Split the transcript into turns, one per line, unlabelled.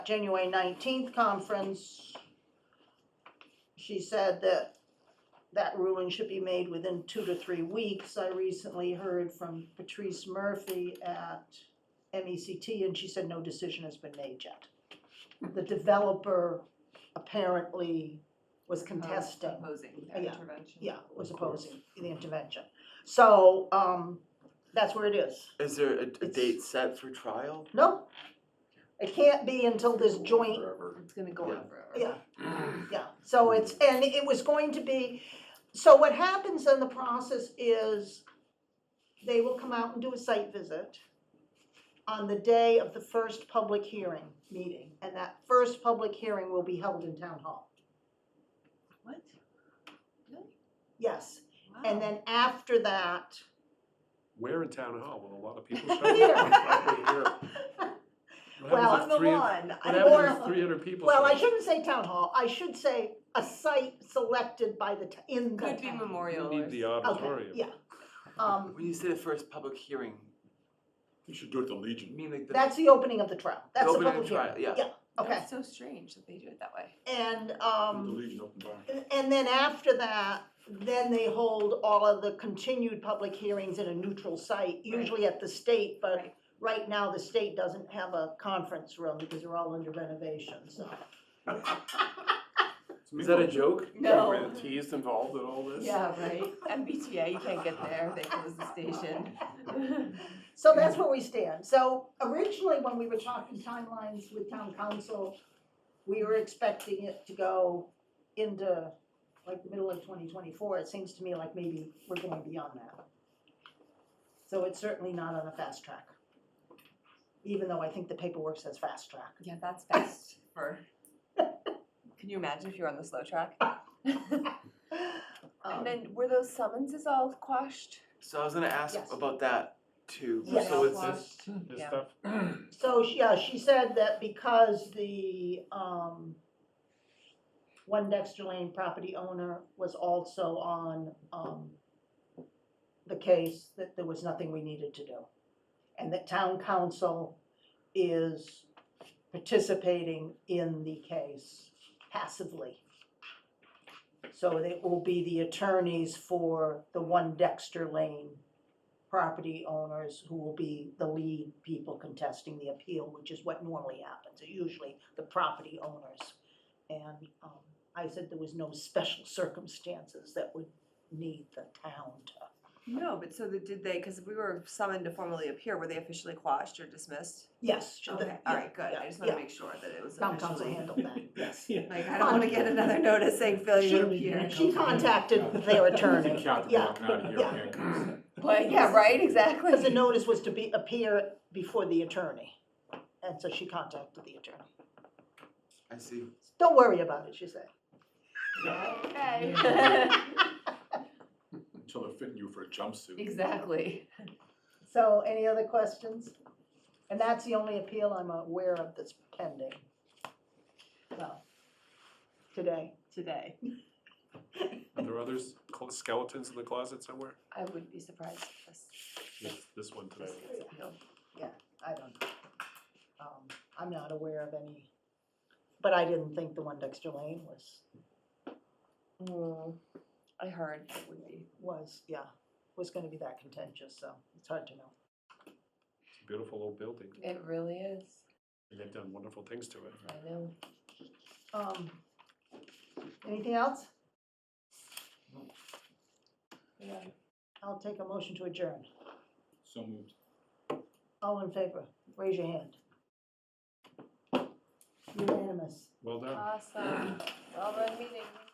January nineteenth conference, she said that that ruling should be made within two to three weeks. I recently heard from Patrice Murphy at MECT, and she said no decision has been made yet. The developer apparently was contesting
Opposing
Yeah.
the intervention.
yeah, was
Of course.
opposing the intervention. So, um, that's where it is.
Is there a, a
It's-
date set for trial?
No, it can't be until this joint,
Forever.
It's gonna go on forever.
yeah, yeah. So it's, and it was going to be, so what happens in the process is they will come out and do a site visit on the day of the first public hearing meeting. And that first public hearing will be held in town hall.
What? Really?
Yes,
Wow.
and then after that,
Where in town hall will a lot of people show
Here.
up? Probably here. What
Well,
happens
On
if
the
three-
lawn.
What
Or-
happens if three hundred people show
Well, I
up?
shouldn't say town hall, I should say a site selected by the, t- in the town.
Could be memorial
You
or.
need the
Okay,
auditorium.
yeah. Um,
When you say the first public hearing,
You should do it at the
you
Legion.
mean like the.
that's the opening of the trial, that's the
opening of
public
trial,
hearing.
yeah.
Okay,
That's so strange that they do it that way.
and,
Do The
um,
Legion open bar.
and- and then after that, then they hold all of the continued public hearings in a neutral site, usually at the state, but
Right.
right now, the state doesn't have a conference room because they're all under renovation, so.
Is that a joke?
No.
Grantees involved in all this?
Yeah, right? MBTA, you can't get there, they close the station.
So that's where we stand. So originally, when we were talking timelines with town council, we were expecting it to go into like the middle of twenty twenty-four. It seems to me like maybe we're going beyond that. So it's certainly not on a fast track. Even though I think the paperwork says fast track.
Yeah, that's best for, can you imagine if you're on the slow track?
Um,
And then were those summonses all quashed?
So I was gonna ask
Yes.
about that too.
Yes.
So it's
Yes.
just,
This
Yeah.
stuff,
So, she- yeah, she said that because the, um, One Dexter Lane property owner was also on, um, the case, that there was nothing we needed to do. And that town council is participating in the case passively. So it will be the attorneys for the One Dexter Lane property owners who will be the lead people contesting the appeal, which is what normally happens, usually the property owners. And um, I said there was no special circumstances that would need the town to.
No, but so the, did they, because we were summoned to formally appear, were they officially quashed or dismissed?
Yes. should the-
Okay, all right, good, I
yeah,
just want
yeah.
to make sure that it was
Town council
officially.
handled that, yes.
Like, I don't want to get another notice saying failure to appear.
She contacted their attorney, yeah, yeah.
But, yeah, right, exactly.
because the notice was to be, appear before the attorney. And so she contacted the attorney.
I see.
Don't worry about it, she said.
Okay.
Until they're fitting you for a jumpsuit.
Exactly.
So any other questions? And that's the only appeal I'm aware of that's pending. Well, today.
Today.
are there others, cl- skeletons in the closet somewhere?
I wouldn't be surprised if this,
This, this one
this
today.
gets appealed.
I don't know. Um, I'm not aware of any, but I didn't think the one Dexter Lane was,
Mm, I heard it would be.
was, yeah, was gonna be that contentious, so it's hard to know.
It's a Beautiful old building,
It really is.
and they've done wonderful things to it.
I know.
Um, anything else?
Yeah.
I'll take a motion to adjourn.
So moved.
All in favor, raise your hand. Unanimous.
Well done.
Awesome. Well done meeting.